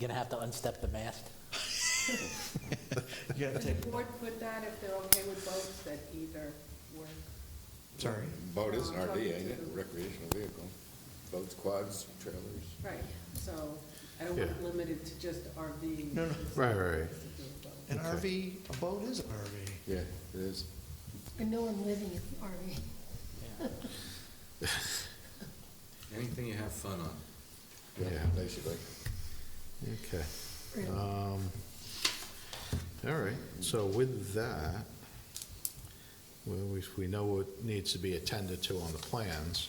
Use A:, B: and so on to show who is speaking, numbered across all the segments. A: Gonna have to unstep the mast?
B: You have to
C: Could
B: take,
C: the board put that if they're okay with boats that either work?
B: sorry.
D: Boat is an
C: Um,
D: RV, ain't it?
C: talking to-
D: Recreational vehicle. Boats, quads, trailers.
C: Right, so I don't want it
E: Yeah.
C: limited to just RV.
B: No, no.
E: Right, right, right.
B: An
E: Okay.
B: RV, a boat is an RV.
D: Yeah, it is.
F: And no one living in the RV.
A: Yeah.
G: Anything you have fun on.
E: Yeah.
D: Basically.
E: Okay.
F: Really.
B: Uh,
E: Um, All right, so with that, well, we, we know what needs to be attended to on the plans.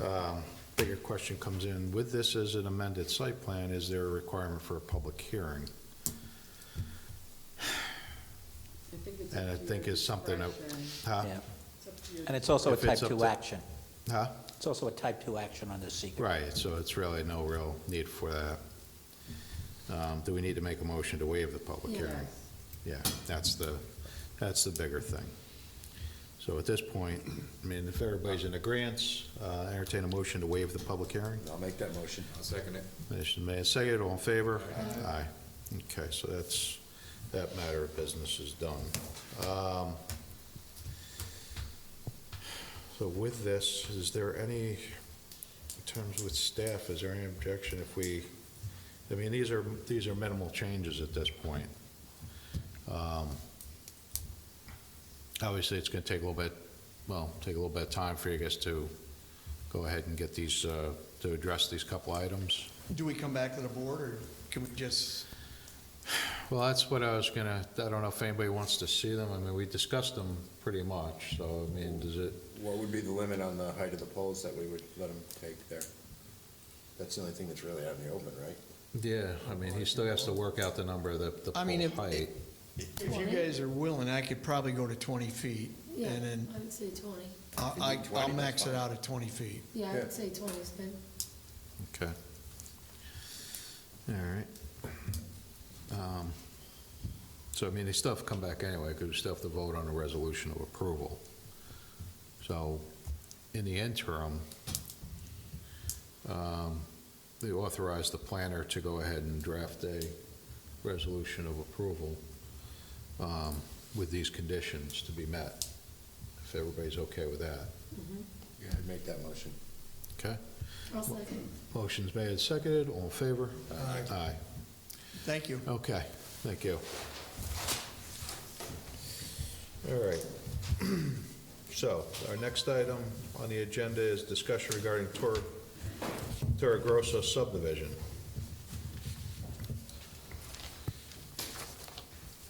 E: Um, Bigger question comes in, with this as an amended site plan, is there a requirement for a public hearing?
C: I think it's up
E: And I
C: to your
E: think is something that,
C: discretion.
E: huh?
A: Yeah.
C: It's up to your-
A: And it's also a
E: Uh, If it's
A: type
E: up
A: 2
E: to-
A: action.
E: Huh?
A: It's also a type 2 action under secret.
E: Right, so it's really no real need for that. Um, Do we need to make a motion to waive the public hearing?
C: Yes.
E: Yeah, that's the, that's the bigger thing. So at this point, I mean, if everybody's in agreeance, uh, entertain a motion to waive the public hearing.
D: I'll make that motion.
G: I'll second it.
E: Motion made, and seconded, all in favor? Aye. Okay, so that's, that matter of business is done. Um, So with this, is there any, in terms with staff, is there any objection if we, I mean, these are, these are minimal changes at this point. Um, Obviously, it's gonna take a little bit, well, take a little bit of time for you guys to go ahead and get these, uh, to address these couple items.
B: Do we come back to the board, or can we just,
E: Well, that's what I was gonna, I don't know if anybody wants to see them. I mean, we discussed them pretty much, so, I mean, does it,
D: What would be the limit on the height of the poles that we would let them take there? That's the only thing that's really out in the open, right?
E: yeah, I mean, he still has to work out the number of the, the
B: I mean,
E: pole
B: if-
E: height.
B: if you guys are willing, I could probably go to 20 feet,
F: Yeah,
B: and then
F: I would say twenty.
B: I-
D: If you do
B: I-
D: 20,
B: I'll max
D: that's
B: it
D: fine.
B: out at 20 feet.
F: Yeah, I
D: Yeah.
F: would say twenty is good.
E: Okay. All right. Um, So, I mean, they still have to come back anyway, because we still have to vote on a resolution of approval. So, in the interim, um, they authorize the planner to go ahead and draft a resolution of approval um, with these conditions to be met, if everybody's okay with that.
D: Yeah. I'd make that motion.
E: Okay?
F: I'll second.
E: Motion's made and seconded, all in favor?
B: Aye.
E: Aye.
B: Thank you.
E: Okay, thank you. All right. So, our next item on the agenda is discussion regarding Tor- Torre Grosso subdivision.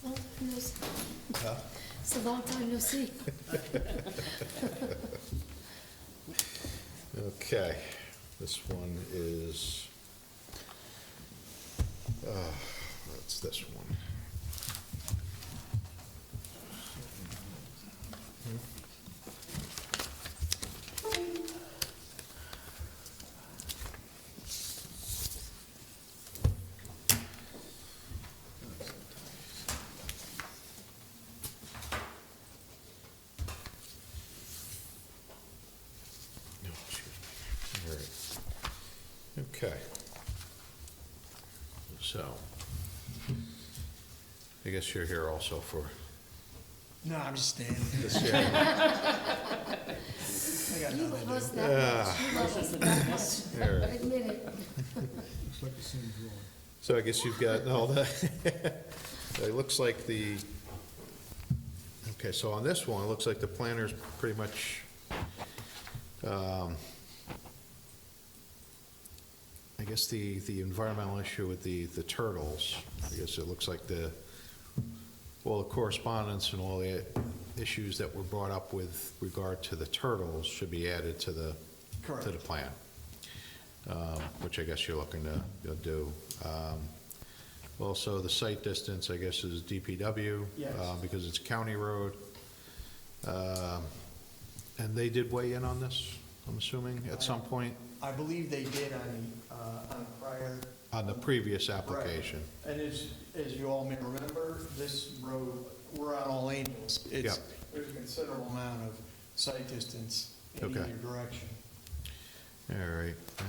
F: Long time no see. It's a long time no see.
E: Okay, this one is, uh, that's this one. No, excuse me. All right. Okay. So, I guess you're here also for
B: No, I'm just standing.
E: this hearing.
B: I got
F: You
B: nothing.
F: love us that much. You love us that much.
E: All right.
F: Admit it.
E: So I guess you've got all that. It looks like the, okay, so on this one, it looks like the planner's pretty much, um, I guess the, the environmental issue with the, the turtles, I guess it looks like the, all the correspondence and all the issues that were brought up with regard to the turtles should be added to the, to the
B: Correct.
E: plan um, which I guess you're looking to you'll do. Um, Also, the site distance, I guess, is DPW.
B: Yes.
E: uh, Because it's a county road. Um, And they did weigh in on this, I'm assuming, at some point,
B: I believe they did on, the, uh, on prior,
E: on the previous application?
B: and as, as you all may remember, this road, we're on all angles. It's,
E: Yeah.
B: there's a considerable amount of sight distance in
E: Okay.
B: either direction.
E: All right.